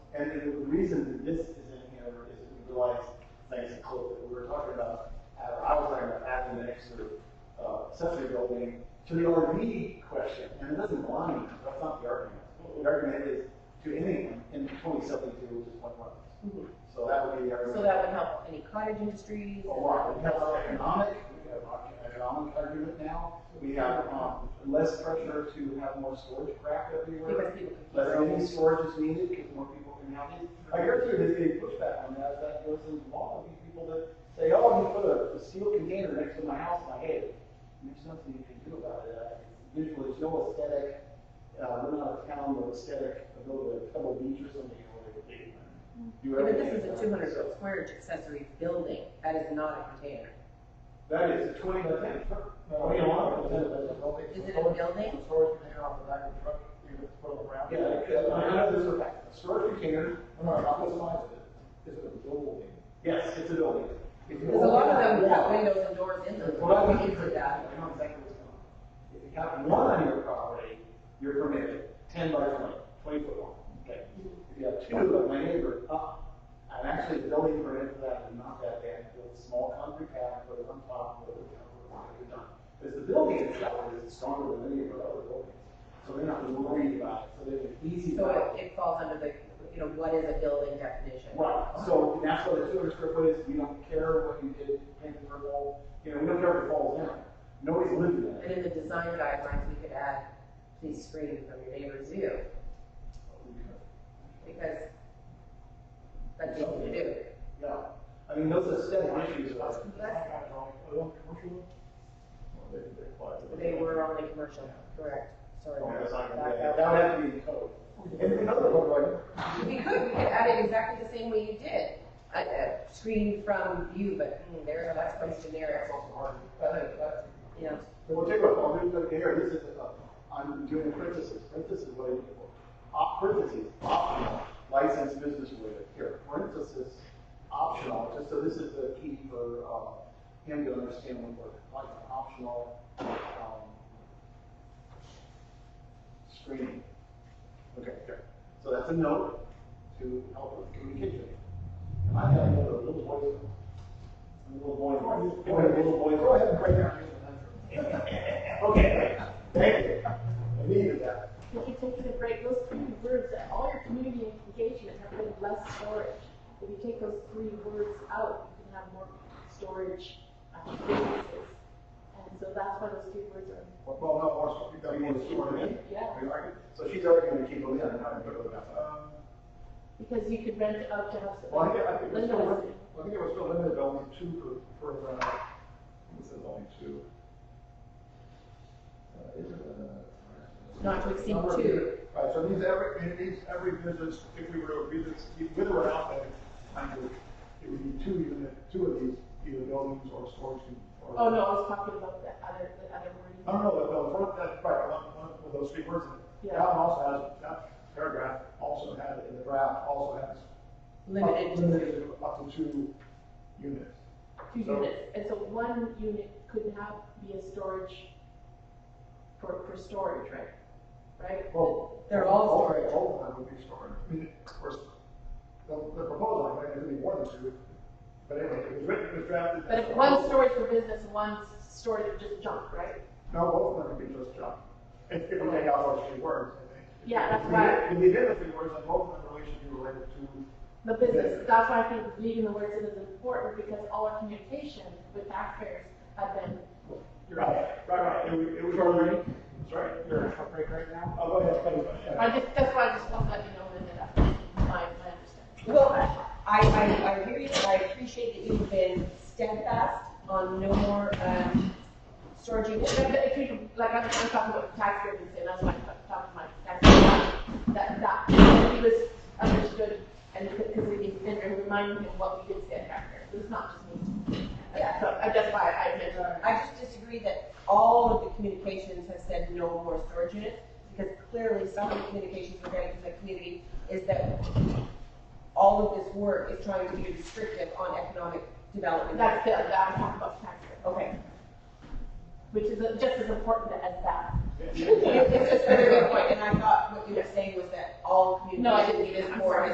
And it- the reason that this is in here is we realized, thanks to Cliff, that we were talking about, uh, I was talking about adding an extra uh, accessory building to the RV question, and it doesn't belong in there, that's not the argument. The argument is to anyone in twenty seventy-two, which is one month. So that would be the argument. So that would help any cottage industries. A lot, we have economic, we have an economic argument now, we have, um, less pressure to have more storage craft everywhere. Because people can. Less mini storage is needed because more people can have it. I hear too, there's big pushback on that, that goes into law, these people that say, oh, I'm gonna put a, a steel container next to my house, and I hate it. And There's nothing you can do about it, Uh, visually, there's no aesthetic, uh, we're not a town with aesthetic, a little bit of Pebble Beach or something, or like a big one. Do But everything this is a about two hundred it. foot square inch accessory building, that is not a container. That is a twenty by ten. No, you don't want it. Is it a building? Storage container off the back of the truck, you can throw it around. Yeah, I know there's a storage container, I'm not, I'm not lying Is it a building? yes, it's a building. Because a lot of them have windows and doors in them, Well, we I mean, into that. I know exactly what's going on. If you have one on your property, you're permitted, ten by twenty, twenty foot long, okay? If you have two, like my neighbor, up, I'm actually building permit for that, and not that bad, build a small concrete pad, put it on top, put it down, put it on, you're done. Because the building itself is stronger than any of our other buildings, so they're not worried about it, so they're easy. So about it. it, it falls under the, you know, what is a building definition? Right, so and that's why the two hundred square foot is, we don't care what you did, paint the wall, you know, we don't care if it falls down. Nobody's living in And it. in the design guidelines, we could add, please screen from your neighbor's view, because that's easy to do. Yeah, I mean, those aesthetic issues are, That's- Oh, They were only commercial, correct, sorry. oh, that's not gonna be- Back that up. would have to be in code. And another one, right, We could, we could add it exactly the same way you did, uh, uh, screen from view, but hmm, there, that's quite generic, you know. Well, take a look, I'll do it here, this is, uh, I'm doing parentheses, parentheses, what are you looking for? Op, parentheses, optional, licensed business related, here, parentheses, optional, just so this is the key for, uh, him to understand what we're, like, optional, um, screening. Okay, here, so that's a note to help with communication. And I have another little voice, a little boy, a little boy. Go ahead and break down. Okay, thank you. I needed that. If you take the break, those three words, that all your community engagement have been less storage. If you take those three words out, you can have more storage uh, businesses. And so that's why those three words are, Well, no, once, you got You one, want to keep them in? yeah, You like it? So she's already gonna keep them in, I'm not gonna put them out. Um, because you could rent it out to have. Well, I think, I think it was Linda still, was, lim- I think it was still limited to only two per, per, uh, it says only two. Uh, is it, uh, Not to exceed number of two. people. Right, so these every, it needs every business, if we were to agree this, with or without that, under, it would need two unit, two of these, either buildings or storage. unit or- oh no, I was talking about the other, the other No, no, wording. Oh, no, the- the front, that's right, one, one of those three words. in it. Yeah. That one also has, that paragraph also had, it in the draft, also has. Limited to Limited to up to two units. Two So- units, and so one unit could have, be a storage for, for storage, right? Right? Well, They're all of- All of them would be storage. I mean, of course, the, the proposal, I think, is gonna be more than two, but anyway, it was written, it was drafted. But if one's storage for business, and one's storage for just junk, right? No, both of them could be just junk. If you take out those three words, I think. Yeah, that's If we- right. If we did the three words, then both of them really should be related to The business, that's why I think leaving the words in is important, because all our communication with taxpayers have been, You're Right, right, right, it was, it was already, sorry, you're on break right now? Oh, go ahead, go I ahead. just, that's why I just want to let you know that that's my, my understanding. Well, I, I, I hear you, and I appreciate that you've been steadfast on no more, um, storage units. But if you, like, I'm, I'm talking about taxpayers, and that's why I'm talk- talking about taxpayers, that, that, that he was understood, and because we did, and reminding him what we did say at taxpayers, it's not just me. Yeah. So, I just, why I mentioned. I just disagree that all of the communications have said no more storage units, because clearly some of the communications we're getting from the community is that all of this work is trying to be restrictive on economic development. That's the, that I'm talking about taxpayers. Okay. which is uh, just as important as that. It's just a very good point, and I thought what you were saying was that all No, I didn't communications mean it. is I'm more sorry.